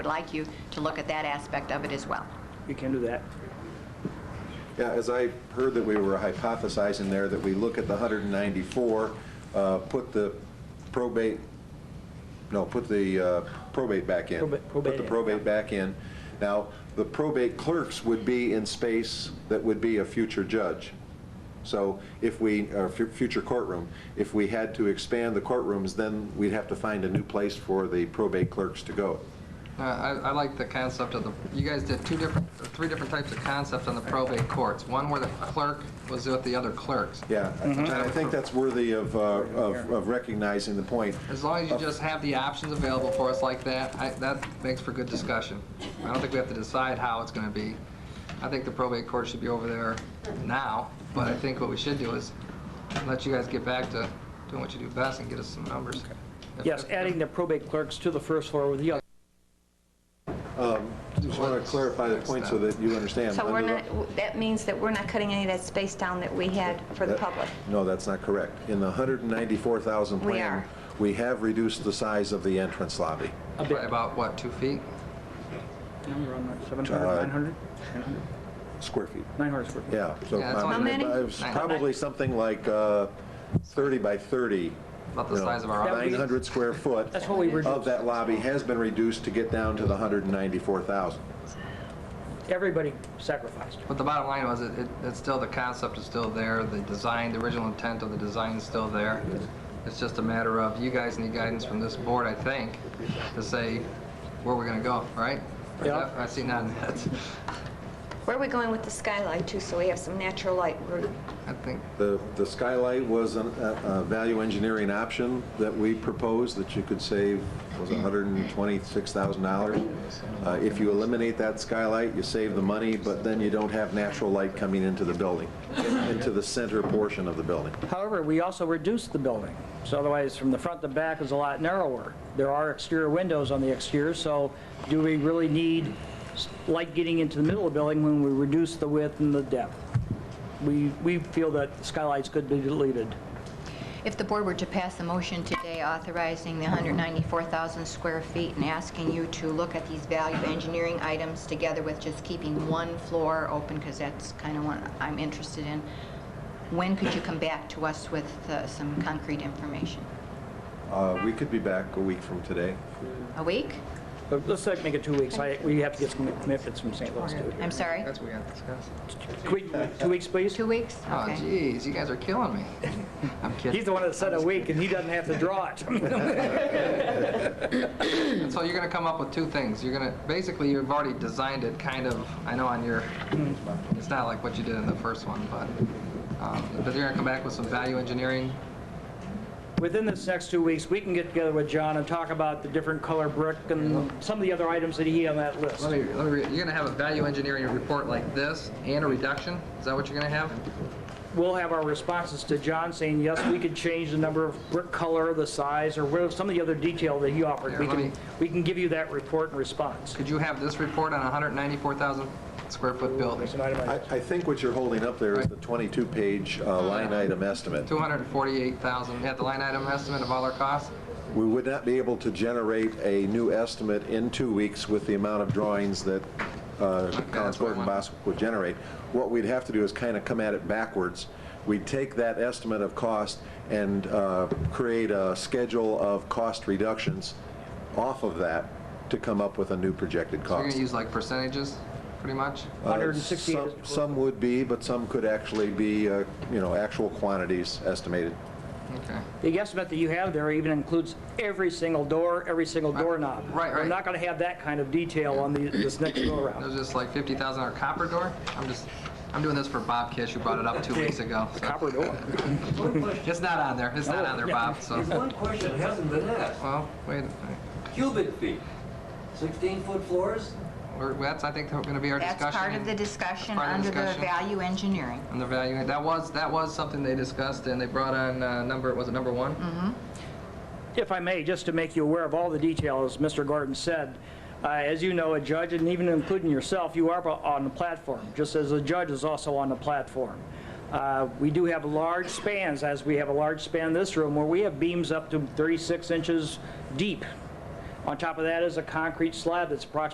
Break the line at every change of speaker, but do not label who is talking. would like you to look at that aspect of it as well.
You can do that.
Yeah, as I heard that we were hypothesizing there, that we look at the 194, uh, put the probate, no, put the uh, probate back in.
Probate-
Put
probate
the
in,
probate back in. Now, the probate clerks would be in space that would be a future judge. So if we, or fu- future courtroom, if we had to expand the courtrooms, then we'd have to find a new place for the probate clerks to go.
Uh, I, I like the concept of the, you guys did two different, or three different types of concepts on the probate courts. One where the clerk was with the other clerks.
Yeah, and I think that's worthy of, uh, of of recognizing the point.
As long as you just have the options available for us like that, I, that makes for good discussion. I don't think we have to decide how it's gonna be. I think the probate court should be over there now, but I think what we should do is let you guys get back to doing what you do best and get us some numbers. If-
Yes,
if-
adding the probate clerks to the first floor with the other.
Just want to clarify the point so that you understand.
So we're
Under the-
not, that means that we're not cutting any of that space down that we had for the
that-
public.
No, that's not corect. In the 194,000
We
plan,
are.
we have reduced the size of the entrance lobby.
By about, what, two feet?
Seven hundred, nine hundred?
Square feet.
Nine hundred square feet.
Yeah. so
Yeah, that's
probably-
How
many?
it was
Nine.
Probably something like uh, 30 by 30.
About the
you know,
size of our office.
900 square foot.
That's what we
Of
reduced.
that lobby has been reduced to get down to the 194,000.
Everybody sacrificed.
But the bottom line was, it, it- it's still, the concept is still there, the design, the original intent of the design is still there. It's just a matter of, you guys need guidance from this board, I think, to say where we're gonna go, right?
Yeah.
I see none yet.
Where are we going with the skylight too, so we have some natural light? We're-
I think,
The the skylight was an- a a value engineering option that we proposed that you could save, was it $126,000? Uh, If you eliminate that skylight, you save the money, but then you don't have natural light coming into the building, into the center portion of the building.
However, we also reduced the building. So otherwise, from the front to back is a lot narrower. There are exterior windows on the exterior, so do we really need s- light getting into the middle of the building when we reduce the width and the depth? We, we feel that skylights could be deleted.
If the board were to pass a motion today authorizing the 194,000 square feet and asking you to look at these value engineering items together with just keeping one floor open, because that's kind of what I'm interested in, when could you come back to us with uh, some concrete information?
Uh, We could be back a week from today.
A week?
But let's like make it two weeks. I, we have to get some commitments from St. Louis too.
I'm sorry?
that's what we gotta discuss.
Can we- Two weeks, please?
Two weeks?
Oh
Okay.
jeez, you guys are killing me. I'm
He's
kidding.
the one that said a week, and he doesn't have to draw it.
So you're gonna come up with two things. You're gonna, basically, you've already designed it kind of, I know on your, it's not like what you did in the first one, but, um, but you're gonna come back with some value engineering
Within this next two weeks, we can get together with John and talk about the different color brick and some of the other items that he had on that list.
Let me, let me, read- you're gonna have a value engineering report like this and a reduction? Is that what you're gonna have?
We'll have our responses to John saying, yes, we could change the number of brick color, the size, or what- some of the other detail that he offered.
Yeah,
We
let
can,
me-
we can give you that report and response.
Could you have this report on a hundred ninety-four thousand square foot building?
It's an item
I
I-
I think what you're holding up there is the 22-page line item estimate.
Two hundred and forty-eight thousand, at the line item estimate of all our costs?
We would not be able to generate a new estimate in two weeks with the amount of drawings that uh, Collinsburg and Boswick would generate. What we'd have to do is kind of come at it backwards. We'd take that estimate of cost and uh, create a schedule of cost reductions off of that to come up with a new projected
You're
cost.
gonna use like percentages, pretty much?
Uh,
168
some-
is-
Some would be, but some could actually be, uh, you know, actual quantities estimated.
Okay.
The estimate that you have there even includes every single door, every single doorknob.
right,
We're
right.
not going to have that kind of detail on the- this next go-around.
There's just like fifty thousand dollar copper door? I'm just, I'm doing this for Bob Kish, who brought it up two weeks ago. so-
Copper door.
One question,
It's not on there, it's not on there, Bob, so,
one question hasn't been asked.
well, wait,
Cubic feet, 16-foot floors?
we're, that's, I think, gonna be our discussion.
That's part of the discussion
Part of the
under the
discussion.
value engineering.
And the value, that was, that was something they discussed, and they brought on, uh, number, was it number one?
If I may, just to make you aware of all the details, Mr. Gordon said, uh, as you know, a judge, and even including yourself, you are on the platform, just as a judge is also on the platform. Uh, We do have large spans, as we have a large span in this room, where we have beams up to 36 inches deep. On top of that is a concrete slab that's approximately